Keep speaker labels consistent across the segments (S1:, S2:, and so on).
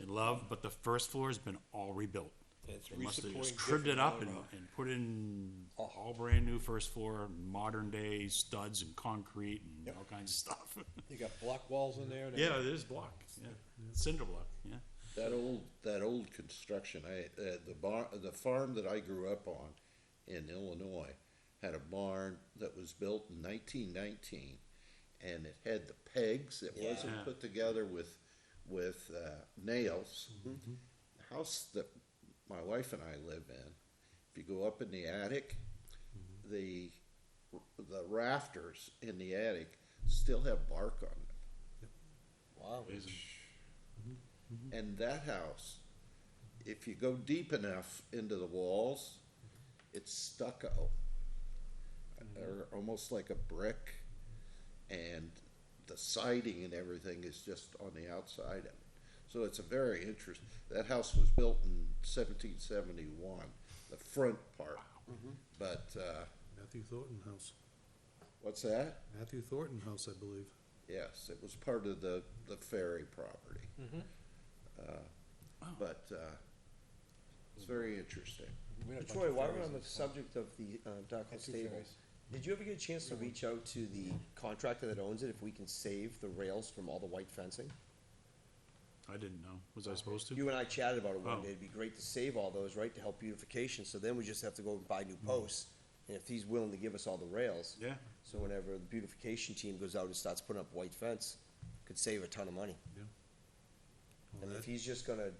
S1: and love, but the first floor has been all rebuilt.
S2: It's
S1: They must have
S2: re-supporting
S1: just cribbed it up and,
S2: different
S1: and put in all brand new first floor, modern day studs and concrete and all kinds of stuff.
S2: You got block walls in there and
S1: Yeah, it is block, yeah, cinder block, yeah.
S3: That old, that old construction, I, uh, the bar, the farm that I grew up on in Illinois had a barn that was built in nineteen nineteen. And it had the pegs, it
S1: Yeah.
S3: wasn't put together with, with, uh, nails. The House that my wife and I live in, if you go up in the attic, the, the rafters in the attic still have bark on them.
S2: Wow.
S3: And that house, if you go deep enough into the walls, it's stucco. Or almost like a brick. And the siding and everything is just on the outside of it. So it's a very interesting, that house was built in seventeen seventy-one, the front part. But, uh,
S4: Matthew Thornton House,
S3: what's that?
S4: Matthew Thornton House, I believe.
S3: Yes, it was part of the, the ferry property. Uh, But, uh, it's very interesting.
S5: Troy, while we're on the subject of the uh, Dartmouth
S2: two
S5: Stable,
S2: ferries.
S5: did you ever get a chance to reach out to the contractor that owns it if we can save the rails from all the white fencing?
S1: I didn't know, was I supposed to?
S5: You and I chatted about it
S1: Oh.
S5: one day, it'd be great to save all those, right, to help beautification, so then we just have to go and buy new posts. And if he's willing to give us all the rails.
S1: Mm. Yeah.
S5: So whenever the beautification team goes out and starts putting up white fence, could save a ton of money. And if he's just gonna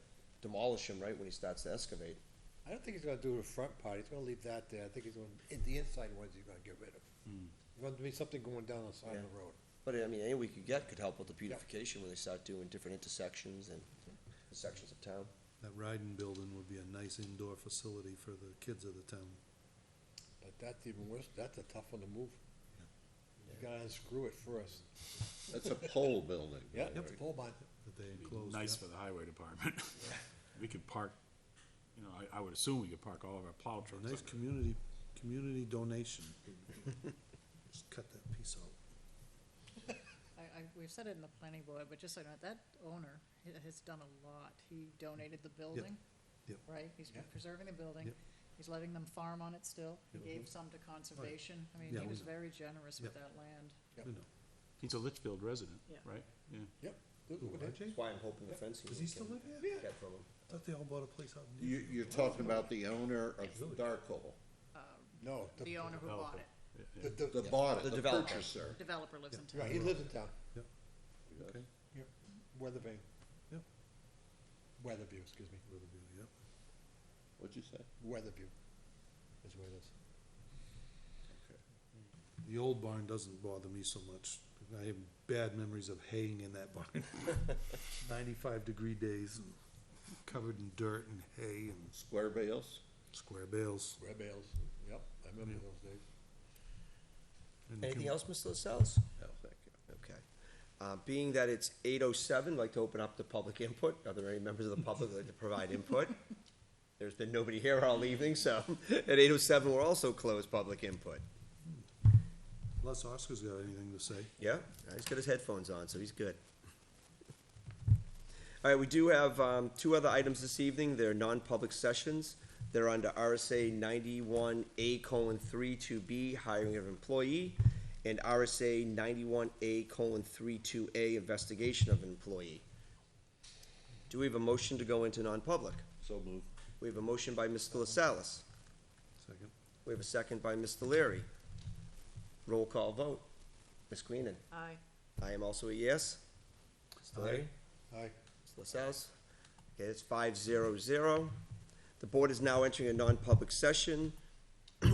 S5: demolish them, right, when he starts to excavate,
S2: I don't think he's gonna do the front part, he's gonna leave that there, I think he's gonna, in the inside ones he's gonna get rid of.
S1: Hmm.
S2: There's gonna be something going down the side of the road.
S5: But I mean, any we could get could help with the beautification when they start doing different intersections and sections of town.
S4: That Ryden building would be a nice indoor facility for the kids of the town.
S2: But that's even worse, that's a tough one to move. You gotta unscrew it first.
S3: That's a pole building.
S2: Yeah, it's a pole barn.
S4: that they enclosed.
S1: Nice
S4: yeah.
S1: for the highway department. We could park, you know, I, I would assume we could park all of our plow trucks
S4: Nice
S1: under it.
S4: community, community donation. Just cut that piece out.
S6: I, I, we've said it in the planning board, but just so you know, that owner ha- has done a lot. He donated the building.
S4: yep.
S6: Right? He's been preserving the building.
S4: Yep.
S6: He's letting them farm on it still. He gave some to conservation. I mean,
S4: Yeah,
S6: he
S4: we
S6: was
S4: know.
S6: very generous with
S4: Yep.
S6: that land.
S4: You know.
S1: He's a Litchfield resident,
S6: Yeah.
S1: right? Yeah.
S2: Yep. Look
S4: Who,
S2: at that.
S4: RJ?
S5: That's why I'm hoping the fencing.
S4: Does he still live here?
S5: Get from him.
S4: Thought they all bought a place out in.
S3: You, you're talking about the owner of Dark Hole,
S2: No. the-
S6: The owner who
S1: Developer.
S6: bought it,
S2: The,
S3: the
S2: the,
S3: bought,
S5: The
S3: the
S5: developer.
S3: purchaser.
S6: developer lives in
S2: right,
S6: town.
S2: he lives in town,
S4: Okay,
S2: Weathervane,
S4: yep.
S2: Weatherview, excuse me,
S4: Riverview, yep.
S3: What'd you say?
S2: Weatherview is where it is.
S4: The old barn doesn't bother me so much. I have bad memories of haying in that barn. Ninety-five degree days and covered in dirt and hay and
S3: Square bales?
S4: square bales.
S2: Red bales, yep, I remember those days.
S4: And
S5: Anything
S4: can-
S5: else, Mr. Lascelles?
S3: No, thank you.
S5: Okay. Uh, being that it's eight oh seven, I'd like to open up the public input. Are there any members of the public that'd like to provide input? There's been nobody here all evening, so at eight oh seven, we're also closed public input.
S4: Unless Oscar's got anything to say.
S5: Yeah, he's got his headphones on, so he's good. All right, we do have um, two other items this evening. They're non-public sessions. They're under RSA ninety-one A colon three two B, hiring of employee, and RSA ninety-one A colon three two A, investigation of employee. Do we have a motion to go into non-public?
S3: So moved.
S5: We have a motion by Mr. Lascelles.
S4: Second.
S5: We have a second by Mr. Leary. Roll call vote. Ms. Queenan?
S6: Aye.
S5: I am also a yes. Mr. Larry?
S2: Aye.
S5: Mr. LaSalle? Okay, it's five zero zero. The board is now entering a non-public session.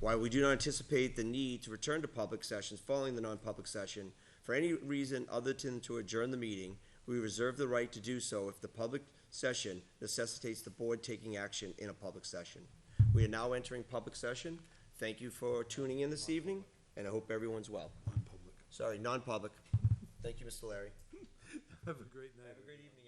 S5: While we do not anticipate the need to return to public sessions following the non-public session, for any reason other than to adjourn the meeting, we reserve the right to do so if the public session necessitates the board taking action in a public session. We are now entering public session. Thank you for tuning in this evening, and I hope everyone's well.
S4: Non-public.
S5: Sorry, non-public. Thank you, Mr. Larry.
S4: Have a great night.
S5: Have a great evening.